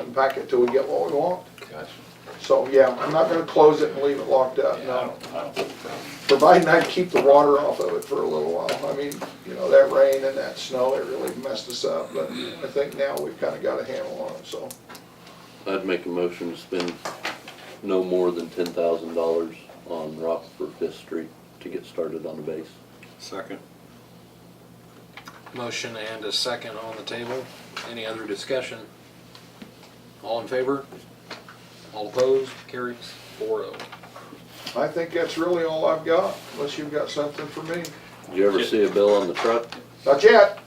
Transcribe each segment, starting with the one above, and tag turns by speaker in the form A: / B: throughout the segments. A: open packet till we get what we want.
B: Uh,
C: Gotcha.
A: So, yeah, I'm not gonna close it and leave it locked up,
C: Yeah, I
A: no.
C: don't, I don't think so.
A: Providing I keep the water off of it for a little while. I mean, you know, that rain and that snow, it really messed us up, but I think now we've kinda got a handle on it, so.
D: I'd make a motion to spend no more than ten thousand dollars on Rockford Fifth Street to get started on the base.
C: Second.
B: Motion and a second on the table. Any other discussion? All in favor? All opposed? Carries four oh.
A: I think that's really all I've got, unless you've got something for me.
D: Did you ever see a bill on the truck?
A: Not yet.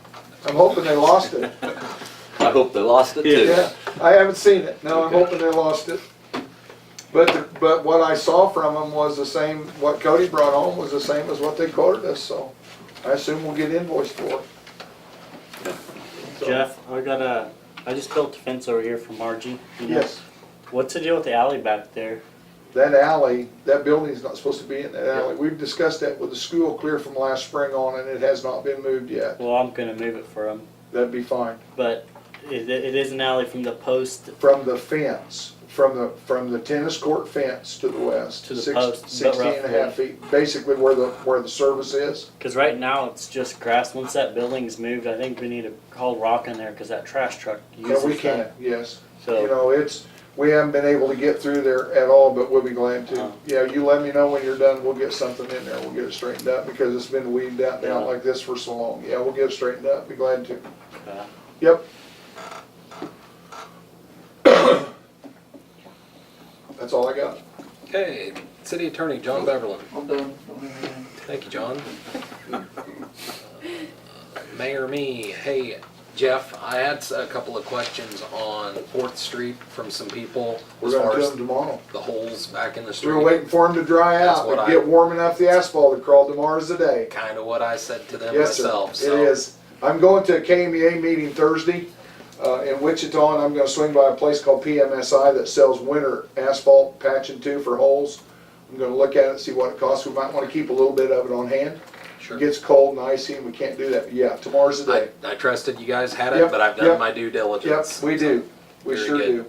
A: I'm hoping they lost it.
D: I hope they lost it too.
A: Yeah, I haven't seen it. No, I'm
D: Okay.
A: hoping they lost it. But, but what I saw from them was the same, what Cody brought home was the same as what they quoted us, so I assume we'll get invoiced for it. So,
E: Jeff, I got a, I just built a fence over here for Margie. you know.
A: Yes,
E: What's the deal with the alley back there?
A: that alley, that building's not supposed to be in that alley. We've discussed that with the school clear from last spring on and it has not been moved yet.
E: Well, I'm gonna move it for him,
A: That'd be fine.
E: but it, it is an alley from the post
A: From the fence, from the, from the tennis court fence to the west.
E: To the
A: six-
E: post, but
A: Sixteen and a half
E: roughly.
A: feet, basically where the, where the service is.
E: Because right now it's just grass. Once that building's moved, I think we need to call rock in there because that trash truck
A: Yeah,
E: uses
A: we can,
E: that.
A: yes. You
E: So
A: know, it's, we haven't been able to get through there at all, but we'll be glad
E: Uh-huh.
A: to. Yeah, you let me know when you're done, we'll get something in there, we'll get it straightened up, because it's been weeded out
E: Yeah.
A: down like this for so long. Yeah, we'll get it straightened up, be glad to.
E: uh,
A: Yep. That's all I got.
B: Okay, City Attorney
C: Oh,
B: John Beverly.
F: I'm done.
B: Thank you, John. Uh, Mayor me, hey, Jeff, I had a couple of questions on Fourth Street from some people
A: We're
B: as
A: gonna
B: far
A: do
B: as
A: them tomorrow.
B: the holes back in the
A: We're
B: street.
A: waiting for them to dry
B: That's
A: out
B: what
A: and
B: I-
A: get warm enough, the asphalt to crawl tomorrow's the day.
B: Kind of what I said to them
A: Yes, sir.
B: myself, so.
A: It is. I'm going to a KMEA meeting Thursday uh, in Wichita, and I'm gonna swing by a place called PMSI that sells winter asphalt patch and two for holes. I'm gonna look at it, see what it costs. We might wanna keep a little bit of it on hand. It
B: Sure.
A: gets cold and icy, and we can't do that. But Yeah, tomorrow's the
B: I,
A: day.
B: I trusted you guys had
A: Yep,
B: it, but I've
A: yep,
B: done my due
A: Yep,
B: diligence.
A: we do. We
B: Very
A: sure
B: good.
A: do.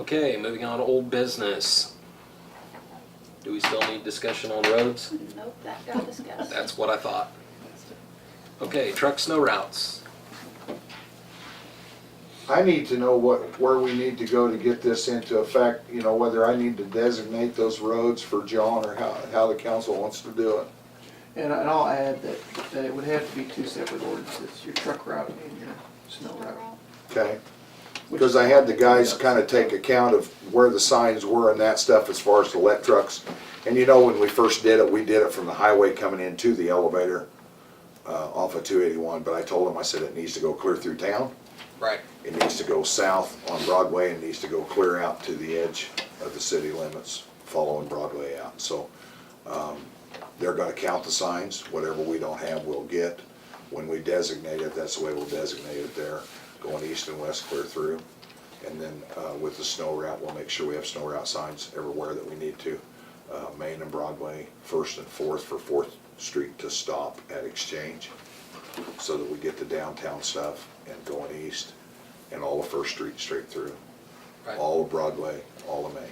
B: Okay, moving on to old business. Do we still need discussion on roads?
G: Nope, that got discussed.
B: That's what I thought. Okay, truck snow routes.
A: I need to know what, where we need to go to get this into effect, you know, whether I need to designate those roads for John or how, how the council wants to do it.
F: And I- and I'll add that, that it would have to be two separate ordinances, your truck route and your snow route.
A: Okay? Because I had the guys kind of take account of where the signs were and that stuff as far as the let trucks. And you know, when we first did it, we did it from the highway coming into the elevator uh, off of 281. But I told them, I said, it needs to go clear through town.
B: Right.
A: It needs to go south on Broadway and needs to go clear out to the edge of the city limits, following Broadway out. So um, they're going to count the signs. Whatever we don't have, we'll get. When we designate it, that's the way we'll designate it there, going east and west clear through. And then uh, with the snow route, we'll make sure we have snow route signs everywhere that we need to. Uh, Main and Broadway, First and Fourth for Fourth Street to stop at Exchange so that we get the downtown stuff and going east and all of First Street straight through,
B: Right.
A: all of Broadway, all of Main.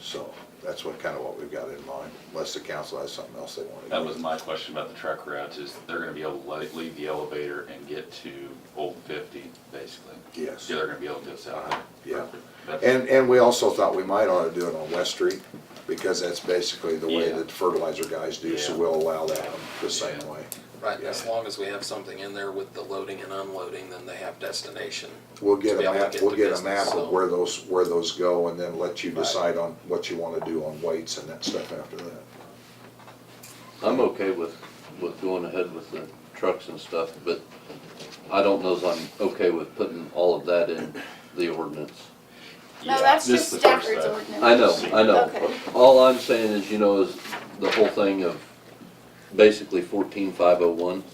A: So that's what, kind of what we've got in mind, unless the council has something else they want to do.
H: That was my question about the truck routes, is they're gonna be able to le- leave the elevator and get to Old Fifty, basically.
A: Yes.
H: Yeah, they're gonna be able to do it south
A: Uh-huh, yeah.
H: there. Perfect. That's-
A: And, and we also thought we might ought to do it on West Street, because that's basically the way
H: Yeah.
A: that fertilizer guys do, so
H: Yeah.
A: we'll allow that on the same
H: Yeah.
A: way.
B: Right, as long as we have something in there with the loading and unloading, then they have destination.
A: We'll get
B: To be
A: a
B: able to
A: map,
B: get
A: we'll
B: the
A: get a
B: business,
A: map of
B: so-
A: where those, where those go, and then let you
B: Right.
A: decide on what you want to do on weights and that stuff after that.
D: I'm okay with, with going ahead with the trucks and stuff, but I don't know if I'm okay with putting all of that in the ordinance.
G: No,
H: yeah,
G: that's
H: this
G: just
H: is the first
G: Stafford's
H: step.
G: ordinance.
D: I know, I know.
G: Okay.
D: All I'm saying is, you know, is the whole thing of basically fourteen five oh one.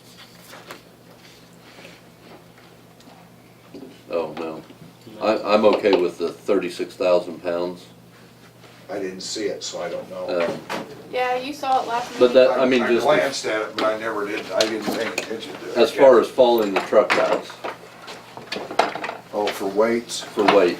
D: Oh, no. I, I'm okay with the thirty-six thousand pounds.
A: I didn't see it, so I don't know.
D: Um,
G: Yeah, you saw it last
D: But
G: meeting.
D: that, I mean, just
A: glanced at it, but I never did, I didn't pay attention to it.
D: as far as following the truck routes,
A: Oh,
I: Oh, for weights?
A: for weight.